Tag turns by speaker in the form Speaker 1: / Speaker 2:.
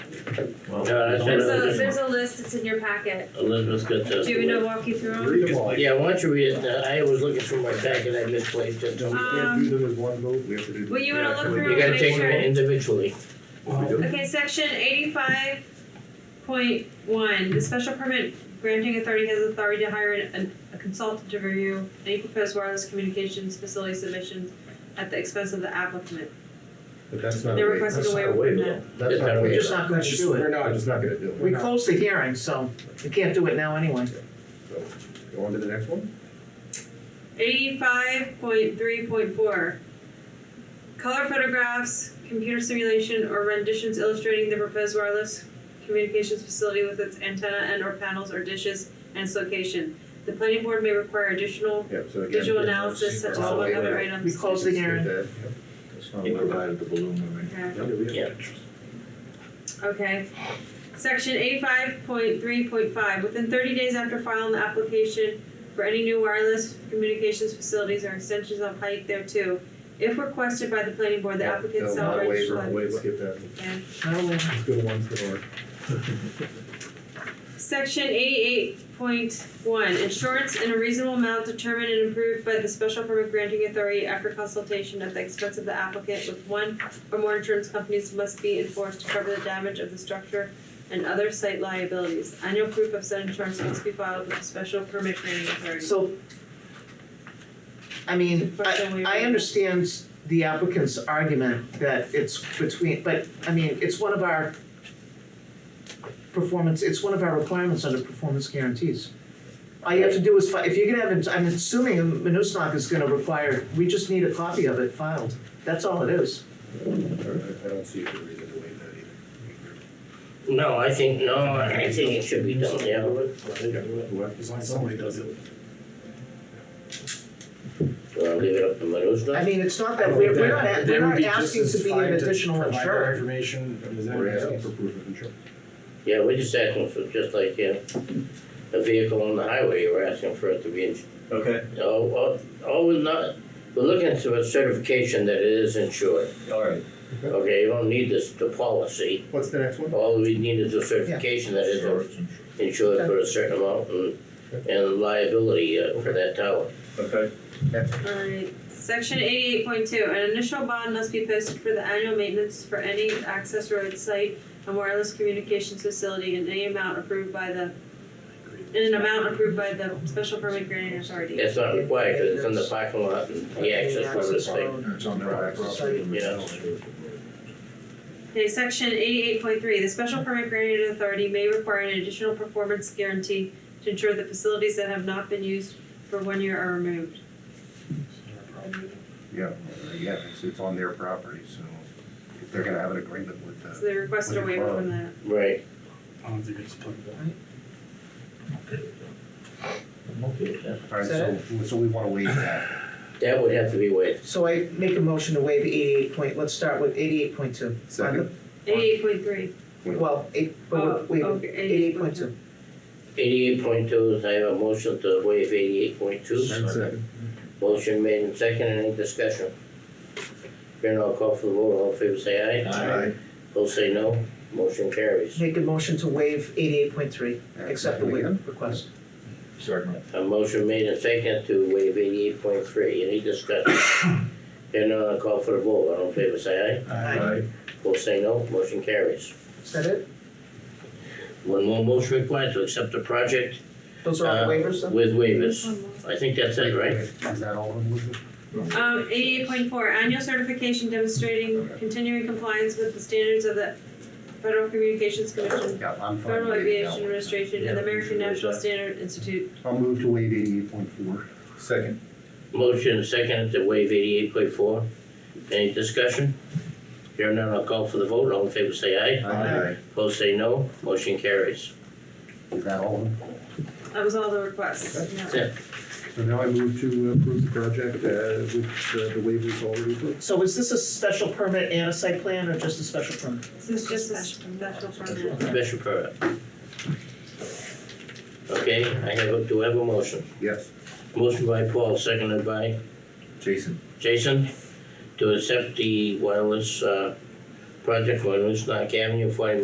Speaker 1: Well,
Speaker 2: Yeah, that's
Speaker 3: There's
Speaker 2: it.
Speaker 3: a, there's a list, it's in your packet.
Speaker 2: Elizabeth's got
Speaker 3: Do you want me to
Speaker 2: the.
Speaker 3: walk you through
Speaker 4: Read them all.
Speaker 2: Yeah, why don't you read it, Uh, I was looking for my packet, I misplaced it.
Speaker 4: No, we
Speaker 3: Uh,
Speaker 4: can't
Speaker 3: Um,
Speaker 4: do them as one vote, we have to do.
Speaker 3: Well, you wanna look
Speaker 4: them.
Speaker 3: through
Speaker 2: You gotta take them individually.
Speaker 4: We
Speaker 3: them?
Speaker 4: do.
Speaker 3: Okay, section eighty-five point one, the special permit granting authority has authority to hire an, a consultant to review any proposed wireless communications facility submissions at the expense of the applicant.
Speaker 4: But that's not.
Speaker 3: They're
Speaker 4: a wa-
Speaker 3: requesting
Speaker 4: that's
Speaker 3: a
Speaker 4: not
Speaker 3: waiver from
Speaker 4: though. That's
Speaker 2: It's
Speaker 4: not
Speaker 2: not
Speaker 4: a
Speaker 2: a
Speaker 5: We're
Speaker 4: waiver.
Speaker 5: just not gonna
Speaker 4: That's
Speaker 5: do
Speaker 4: We're
Speaker 5: it.
Speaker 4: not, just not gonna do it. We're
Speaker 5: We
Speaker 4: not.
Speaker 5: closed the hearing, so we can't do it now anyway.
Speaker 4: So, Go on to the next one?
Speaker 3: Eighty-five point three point four. Color photographs, computer simulation, or renditions illustrating the proposed wireless communications facility with its antenna and or panels or dishes and its location. The planning board may require additional
Speaker 4: Yeah, so again.
Speaker 3: visual analysis such as
Speaker 4: Well,
Speaker 3: among
Speaker 4: wait,
Speaker 3: other
Speaker 4: wait.
Speaker 5: We
Speaker 3: items.
Speaker 5: closed the
Speaker 4: Straight
Speaker 5: hearing.
Speaker 4: there,
Speaker 6: That's not what I had the balloon,
Speaker 3: Okay,
Speaker 4: yeah. Yeah, we have-
Speaker 3: Okay. Section eighty-five point three point five, within thirty days after filing the application for any new wireless communications facilities or extensions of height thereto, if requested by the planning board, the
Speaker 4: Yeah,
Speaker 3: applicant
Speaker 4: no,
Speaker 3: shall
Speaker 4: not a
Speaker 3: register.
Speaker 4: waiver, wait, skip that,
Speaker 3: Okay.
Speaker 5: No,
Speaker 4: let's go to ones that are.
Speaker 3: Section eighty-eight point one, insurance in a reasonable amount determined and approved by the special permit granting authority after consultation at the expense of the applicant with one or more insurance companies must be enforced to cover the damage of the structure and other site liabilities. Annual proof of said insurance must be filed with the special permit granting authority.
Speaker 5: so. I mean,
Speaker 3: Request a
Speaker 5: I,
Speaker 3: waiver.
Speaker 5: I understand the applicant's argument that it's between, but, I mean, it's one of our performance, it's one of our requirements under performance guarantees. All you have to do is, fi- if you're gonna have, I'm assuming Manusnak is gonna require, we just need a copy of it filed. That's all it is.
Speaker 4: I I don't see the reason to waive that either.
Speaker 2: No, I think, no, I think it should be done, yeah.
Speaker 4: Whoever, somebody does it.
Speaker 2: Well, leave it up to
Speaker 5: I
Speaker 2: Manusnak.
Speaker 5: mean, it's not that, we're, we're not, a- we're not asking to be an additional insurer.
Speaker 7: information, is
Speaker 4: We're asking for proof of insurance.
Speaker 2: Yeah, we're just asking for, just like, uh, a vehicle on the highway, you were asking for it to be, ins-
Speaker 6: Okay,
Speaker 2: oh, oh, oh, we're not, we're looking for a certification that it is insured.
Speaker 6: all right.
Speaker 2: Okay, you don't need this, the policy,
Speaker 4: What's the next one?
Speaker 2: all we need is a certification that it's
Speaker 6: Sure, it's in-
Speaker 2: insured for a certain amount and, and liability uh, for that tower.
Speaker 6: Okay,
Speaker 3: Alright, section eighty-eight point two, an initial bond must be posted for the annual maintenance for any access road site and wireless communications facility in any amount approved by the in an amount approved by the special permit granting authority.
Speaker 2: That's not required, cause it's in the parking lot and the access road is there.
Speaker 5: road.
Speaker 6: it's on the
Speaker 4: Right.
Speaker 6: property.
Speaker 2: Yeah.
Speaker 3: Okay, section eighty-eight point three, the special permit granting authority may require an additional performance guarantee to ensure the facilities that have not been used for one year are removed.
Speaker 8: Yeah, yeah, it's, it's on their property, so if they're gonna have an agreement with
Speaker 3: So
Speaker 8: the,
Speaker 3: they requested a waiver from that.
Speaker 2: Right,
Speaker 7: I don't think it's applicable.
Speaker 8: alright, so, so we wanna waive that.
Speaker 2: that would have to be waived.
Speaker 5: So I make a motion to waive eighty-eight point, let's start with eighty-eight point two.
Speaker 8: Second,
Speaker 3: Eighty-eight point three.
Speaker 5: Well, eight,
Speaker 3: Oh,
Speaker 5: but wait,
Speaker 3: okay,
Speaker 5: eighty-eight point two.
Speaker 2: Eighty-eight point two, I have a motion to waive eighty-eight point two.
Speaker 4: And second.
Speaker 2: Motion made and second, any discussion? Here now, call for the vote, all in favor say aye.
Speaker 4: Aye.
Speaker 2: Those say no, motion carries.
Speaker 5: Make a motion to waive eighty-eight point three, accept the waiver request.
Speaker 6: Second.
Speaker 2: A motion made and second to waive eighty-eight point three, any discussion? Here now, I'll call for the vote, all in favor say aye.
Speaker 5: Aye.
Speaker 2: Those say no, motion carries.
Speaker 5: Is that it?
Speaker 2: One more motion required to accept the project
Speaker 5: Those are all
Speaker 2: Uh,
Speaker 5: the waivers then?
Speaker 2: with waivers. I think that's it, right?
Speaker 8: Is that all of them, Elizabeth?
Speaker 3: Um, eighty-eight point four, annual certification demonstrating continuing compliance with the standards of the Federal Communications Commission,
Speaker 8: Yeah, I'm fine.
Speaker 3: Federal
Speaker 8: with it now.
Speaker 3: Aviation Administration, and the American National Standard Institute.
Speaker 8: I'll move to waive eighty-eight point four.
Speaker 4: Second.
Speaker 2: Motion second to waive eighty-eight point four. Any discussion? Here none, I'll call for the vote, all in favor say aye.
Speaker 8: Aye.
Speaker 2: Opposed say no, motion carries.
Speaker 8: Is that all of them?
Speaker 3: That was all the requests. Yeah.
Speaker 4: So now I move to approve the project uh, with uh, the waivers already approved.
Speaker 5: So is this a special permit and a site plan or just a special permit?
Speaker 3: This is just a special permit.
Speaker 2: Special permit. Okay, I have, a- do I have a motion?
Speaker 8: Yes.
Speaker 2: Motion by Paul, seconded by
Speaker 6: Jason.
Speaker 2: Jason to accept the wireless, uh, project for Newsnack Avenue, forty